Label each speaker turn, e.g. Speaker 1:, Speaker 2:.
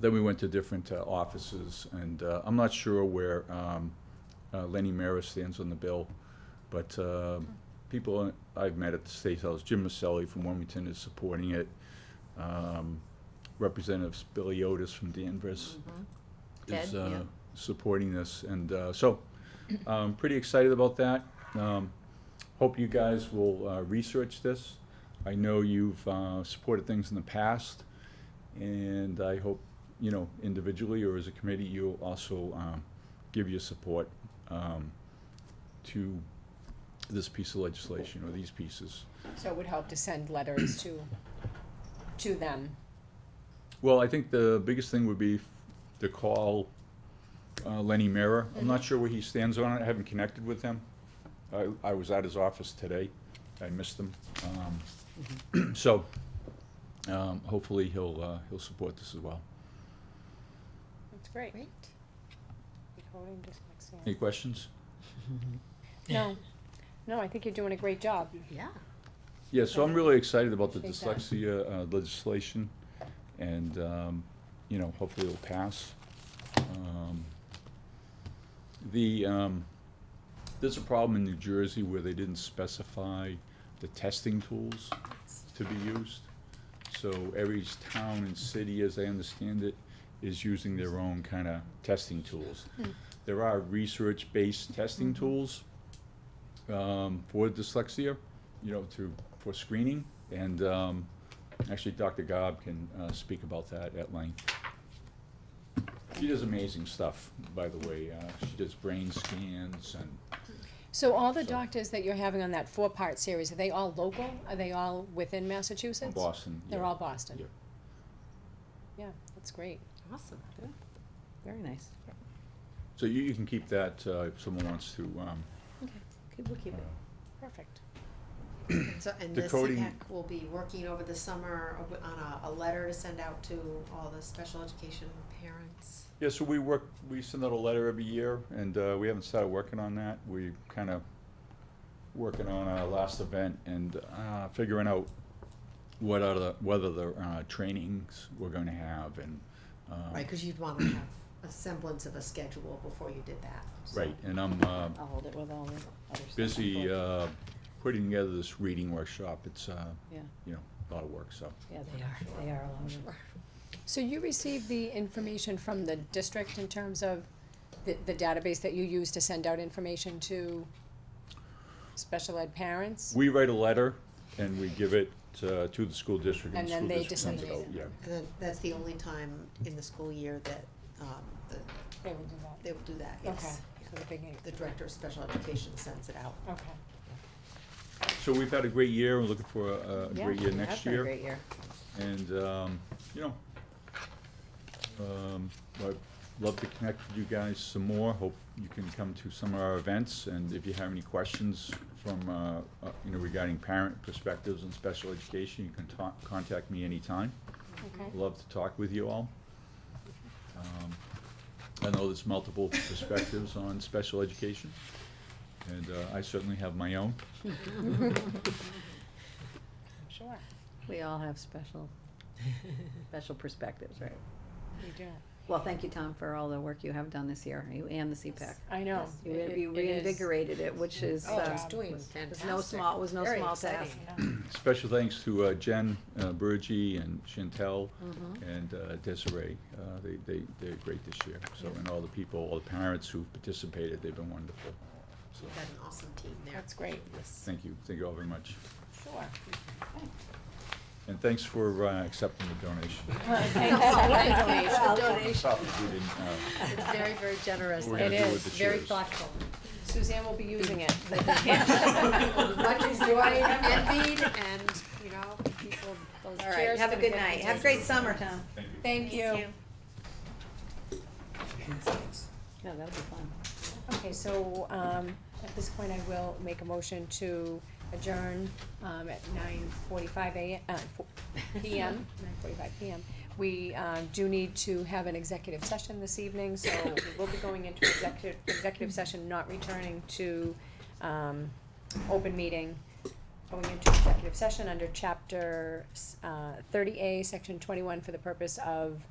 Speaker 1: Then we went to different uh, offices, and uh, I'm not sure where um, uh, Lenny Maris stands on the bill, but uh, people I've met at the State House, Jim Maselli from Wilmington is supporting it. Um, Representative Spiliotis from Danvers is
Speaker 2: Mm-hmm. Ted, yeah.
Speaker 1: uh, supporting this, and uh, so I'm pretty excited about that. Um, Hope you guys will uh, research this. I know you've uh, supported things in the past, and I hope, you know, individually or as a committee, you'll also um, give your support um, to this piece of legislation or these pieces.
Speaker 3: So it would help to send letters to, to them.
Speaker 1: Well, I think the biggest thing would be f- to call uh, Lenny Mara. I'm not sure where he stands on it. I haven't connected with him. I, I was at his office today. I missed him. Um, So, um, hopefully he'll, uh, he'll support this as well.
Speaker 3: That's great.
Speaker 2: Great.
Speaker 1: Any questions?
Speaker 3: No, no, I think you're doing a great job.
Speaker 2: Yeah.
Speaker 1: Yeah, so I'm really excited about the
Speaker 3: Appreciate that.
Speaker 1: dyslexia uh, legislation, and, um, you know, hopefully it'll pass. Um, The, um, there's a problem in New Jersey where they didn't specify the testing tools to be used. So every town and city, as I understand it, is using their own kind of testing tools. There are research-based testing tools um, for dyslexia, you know, to, for screening. And um, actually, Dr. Gobb can uh, speak about that at length. She does amazing stuff, by the way. Uh, She does brain scans and
Speaker 3: So all the
Speaker 1: So-
Speaker 3: doctors that you're having on that four-part series, are they all local? Are they all within Massachusetts?
Speaker 1: Boston.
Speaker 3: They're
Speaker 1: yeah.
Speaker 3: all Boston?
Speaker 1: Yeah.
Speaker 3: Yeah, that's great.
Speaker 2: Awesome. Very nice.
Speaker 1: So you, you can keep that uh, if someone wants to. um,
Speaker 2: Okay, we'll keep
Speaker 1: uh,
Speaker 2: it.
Speaker 3: Perfect.
Speaker 4: So, and
Speaker 1: The
Speaker 4: the
Speaker 1: coding-
Speaker 4: CPAC will be working over the summer w- on a, a letter to send out to all the special education parents.
Speaker 1: Yeah, so we work, we send out a letter every year, and uh, we haven't started working on that. We kind of working on our last event and uh, figuring out what are the, whether the uh, trainings we're going to have and. um,
Speaker 4: Right, because you'd want to have a semblance of a schedule before you did that. so.
Speaker 1: Right, and I'm uh,
Speaker 2: I'll hold it with all the other stuff.
Speaker 1: busy
Speaker 2: Yeah,
Speaker 1: uh, putting together this reading workshop. It's, uh,
Speaker 2: Yeah.
Speaker 1: you know, a lot of work, so.
Speaker 2: they are, they are a lot of.
Speaker 3: So you received the information from the district in terms of the, the database that you use to send out information to special ed parents?
Speaker 1: We write a letter and we give it uh, to the school district and
Speaker 3: And
Speaker 1: the
Speaker 3: then
Speaker 1: school
Speaker 3: they
Speaker 1: district sends it out,
Speaker 3: disseminate
Speaker 1: yeah.
Speaker 4: And then that's the only time in the school year that, um, the,
Speaker 3: They will do that.
Speaker 4: they will do that,
Speaker 3: Okay,
Speaker 4: yes.
Speaker 3: so the beginning,
Speaker 4: The director of special education sends it out.
Speaker 3: okay.
Speaker 1: Uh, So we've had a great year, we're looking for a a
Speaker 2: Yeah,
Speaker 1: great year
Speaker 2: it has
Speaker 1: next
Speaker 2: been a
Speaker 1: year.
Speaker 2: Great year.
Speaker 1: And, um, you know, um, I'd love to connect with you guys some more. Hope you can come to some of our events, and if you have any questions from, uh, uh, you know, regarding parent perspectives and special education, you can talk, contact me anytime.
Speaker 3: Okay.
Speaker 1: Love to talk with you all. Um, I know there's multiple perspectives on special education, and uh, I certainly have my own.
Speaker 3: Sure,
Speaker 2: We all have special, special perspectives, right?
Speaker 3: you do.
Speaker 2: Well, thank you, Tom, for all the work you have done this year, you and the E CPAC.
Speaker 3: I know.
Speaker 2: You
Speaker 3: It-
Speaker 2: re-
Speaker 3: it-
Speaker 2: you
Speaker 3: it is.
Speaker 2: reinvigorated it, which is,
Speaker 3: Oh,
Speaker 2: uh,
Speaker 3: it's
Speaker 4: doing
Speaker 2: was was no
Speaker 4: fantastic.
Speaker 2: small, was no
Speaker 4: Very
Speaker 2: small task.
Speaker 4: exciting.
Speaker 1: Special thanks to uh, Jen uh, Burgee and Chantel and uh, Desiree. Uh, They, they, they're great this year, so, and all the people, all the parents who've participated, they've been wonderful. So,
Speaker 4: You've got an awesome team there.
Speaker 3: That's great,
Speaker 4: Yes.
Speaker 1: thank you, thank you all very much.
Speaker 3: sure.
Speaker 1: And thanks for uh, accepting the donation. Sorry we didn't, uh,
Speaker 4: It's very, very generous.
Speaker 1: We're gonna
Speaker 3: It
Speaker 1: do with
Speaker 3: is
Speaker 1: the
Speaker 4: Very
Speaker 1: chairs.
Speaker 4: thoughtful.
Speaker 3: Suzanne will be using it.
Speaker 4: Much enjoyed, envied, and, you know, people, those
Speaker 2: All right,
Speaker 4: chairs
Speaker 2: have a
Speaker 4: gonna
Speaker 2: good
Speaker 4: get
Speaker 2: night.
Speaker 4: the
Speaker 2: Have a great summer, Tom.
Speaker 1: Thank you.
Speaker 3: Thank you.
Speaker 2: Yeah, that'll be fun.
Speaker 3: Okay, so, um, at this point, I will make a motion to adjourn, um, at nine forty-five AM, uh, fo- PM, nine forty-five PM. We, um, do need to have an executive session this evening, so we will be going into executive, executive session, not returning to, um, open meeting. Going into executive session under chapter, s- uh, thirty A, section twenty-one, for the purpose of